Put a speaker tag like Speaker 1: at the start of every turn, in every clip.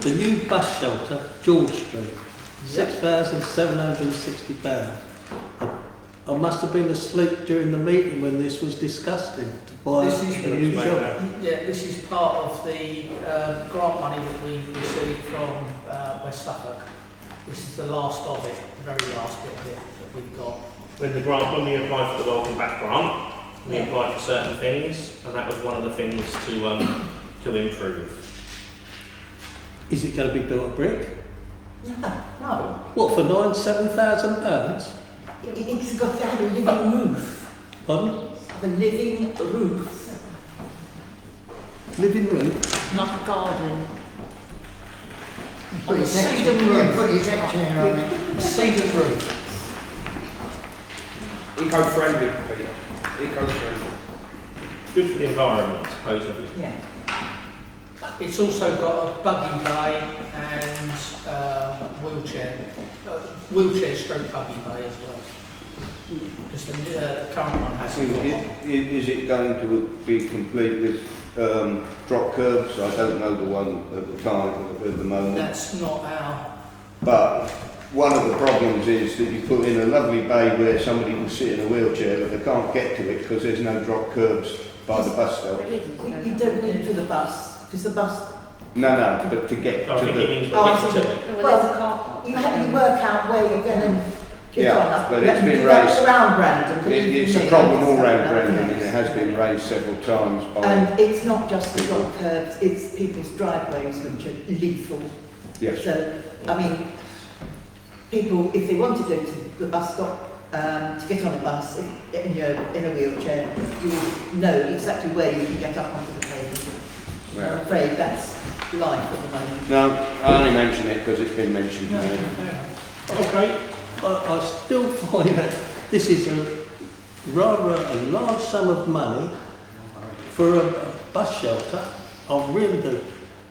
Speaker 1: The new bus shelter, George Street, £6,760. I- I must have been asleep during the meeting when this was disgusted to buy
Speaker 2: This is-
Speaker 1: a new shelter.
Speaker 2: Yeah, this is part of the uh, grant money that we received from uh, West Suffolk. This is the last of it, the very last bit of it that we've got.
Speaker 3: When the grant, when we applied for the Welcome Back grant, we
Speaker 2: Yeah.
Speaker 3: applied for certain things, and that was one of the things to, um, to improve.
Speaker 1: Is it going to be built of brick?
Speaker 2: No,
Speaker 1: What, for nine, seven thousand pounds?
Speaker 4: It's got to have a living roof,
Speaker 1: Pardon?
Speaker 4: the living roof,
Speaker 1: Living room?
Speaker 4: not a garden.
Speaker 2: Put
Speaker 4: On
Speaker 2: a
Speaker 4: a
Speaker 2: section
Speaker 4: cedar
Speaker 2: roof.
Speaker 4: roof.
Speaker 2: on it. cedar roof.
Speaker 5: Eco-friendly, Peter. Eco-friendly.
Speaker 3: Good for the environment, supposedly.
Speaker 4: Yeah.
Speaker 2: It's also got a buggy bay and um, wheelchair, uh, wheelchair stroke buggy bay as well. Because the uh, current one has.
Speaker 6: Is it- i- is it going to be complete with um, drop curbs? I don't know the one at the time, at the moment.
Speaker 2: That's not our
Speaker 6: But one of the problems is that you put in a lovely bay where somebody will sit in a wheelchair, but they can't get to it because there's no drop curbs by the bus stop.
Speaker 4: You you don't need to the bus, because the bus,
Speaker 6: No, no, but to get
Speaker 3: I
Speaker 6: to
Speaker 3: think it
Speaker 6: the...
Speaker 3: means
Speaker 4: Oh, I
Speaker 3: we're
Speaker 4: see.
Speaker 3: getting to it.
Speaker 4: well, you have to work out where you're going to get
Speaker 6: Yeah,
Speaker 4: on. up.
Speaker 6: but it's been
Speaker 4: That's
Speaker 6: raised.
Speaker 4: around Brandon. but
Speaker 6: It,
Speaker 4: you
Speaker 6: it's
Speaker 4: can
Speaker 6: a
Speaker 4: make
Speaker 6: problem all
Speaker 4: that
Speaker 6: round
Speaker 4: yourself,
Speaker 6: Brandon and
Speaker 4: yeah.
Speaker 6: it has been raised several times
Speaker 2: Um,
Speaker 6: by...
Speaker 4: And it's not just the dog curbs, it's people's driveways which are lethal.
Speaker 6: Yes,
Speaker 4: So, I mean, people, if they want to go to the bus stop, um, to get on a bus, if- in your, in a wheelchair, you will know exactly where you can get up onto the pavement. I'm
Speaker 6: well...
Speaker 4: afraid that's life at the moment.
Speaker 6: No, I only mention it because it's been mentioned to me.
Speaker 3: Okay,
Speaker 1: I, I still find that this is a rather a large sum of money for a, a bus shelter. I really do.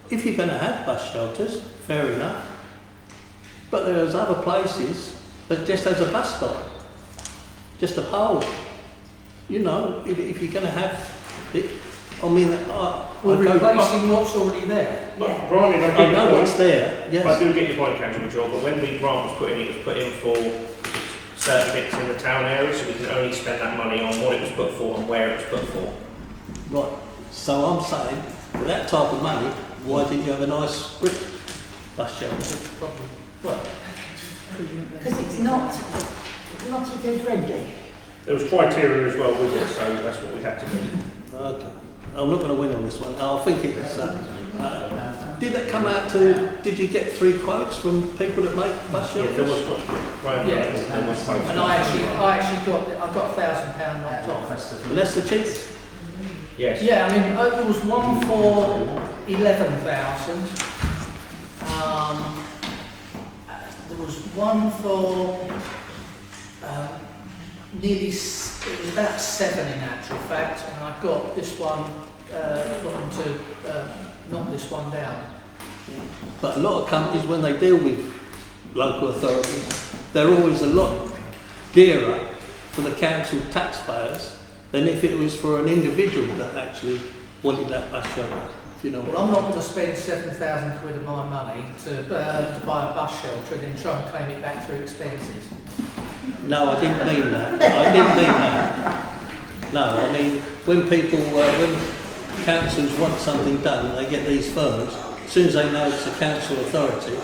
Speaker 1: If you're going to have bus shelters, fair enough. But there's other places that just has a bus stop, just a pole. You know, if, if you're going to have it, I mean, I,
Speaker 2: We're
Speaker 1: I go,
Speaker 2: replacing what's already there.
Speaker 3: but Brian, I
Speaker 1: I
Speaker 3: get your
Speaker 1: know
Speaker 3: point.
Speaker 1: it's there,
Speaker 3: I
Speaker 1: yes.
Speaker 3: do get your point, Councillor Mitchell, but when the grant was put in, it was put in for certain bits in the town area, so we can only spend that money on what it was put for and where it was put for.
Speaker 1: Right, so I'm saying, for that type of money, why didn't you have a nice brick bus shelter?
Speaker 2: That's the problem. Well,
Speaker 4: Because it's not, not eco-friendly.
Speaker 3: There was criteria as well with it, so that's what we had to do.
Speaker 1: Okay, I'm not going to win on this one, I think it's, uh, uh, did that come out to, did you get three quotes from people that make bus
Speaker 3: Yeah, there was
Speaker 1: shelters?
Speaker 3: one. Right,
Speaker 2: Yeah.
Speaker 3: there was one.
Speaker 2: And I actually, I actually got, I got a thousand pound knocked off.
Speaker 1: Less the cheese?
Speaker 3: Yes.
Speaker 2: Yeah, I mean, uh, there was one for eleven thousand. Um, uh, there was one for, um, nearly, s- it was about seven in actual fact, and I got this one, uh, got them to, uh, knock this one down.
Speaker 1: But a lot of companies, when they deal with local authorities, they're always a lot dearer for the council taxpayers than if it was for an individual that actually wanted that bus shelter, if you know what I
Speaker 2: Well, I'm not going to spend seven thousand quid of my money to, uh, to buy a bus shelter and then try and claim it back through expenses.
Speaker 1: No, I didn't mean that. I didn't mean that. No, I mean, when people, uh, when councils want something done, they get these firms, as soon as they know it's a council authority,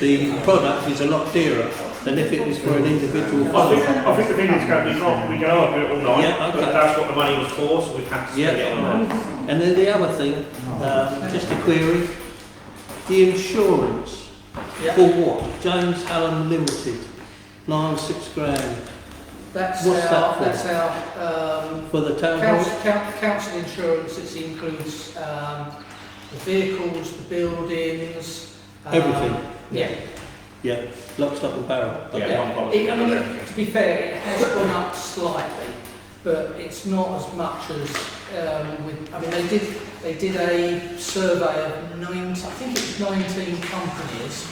Speaker 1: the product is a lot dearer than if it was for an individual
Speaker 3: I
Speaker 1: firm.
Speaker 3: think, I think the thing is going to be not, we can argue it all night,
Speaker 1: Yeah, okay.
Speaker 3: but that's what the money was for, so we have to spend it on that.
Speaker 1: Yeah, and then the other thing, um, just a query, the insurance
Speaker 2: Yeah.
Speaker 1: for what? James Allen Limited, nine, six grand
Speaker 2: That's
Speaker 1: What's that
Speaker 2: our,
Speaker 1: for?
Speaker 2: that's our, um,
Speaker 1: for the town hall?
Speaker 2: council, coun- council insurance, it includes, um, the vehicles, the buildings. um,
Speaker 1: Everything.
Speaker 2: Yeah,
Speaker 1: Yeah, lock, stock and barrel.
Speaker 3: Yeah, one policy.
Speaker 2: It- I mean, it- to be fair, it has gone up slightly, but it's not as much as, um, with, I mean, they did, they did a survey of nine, I think it's 19 companies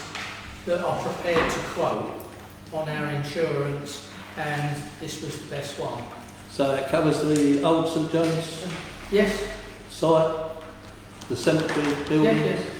Speaker 2: that are prepared to quote on our insurance, and this was the best one.
Speaker 1: So that covers the old St John's
Speaker 2: Yes,
Speaker 1: site, the cemetery
Speaker 2: yeah,
Speaker 1: building,
Speaker 2: yes.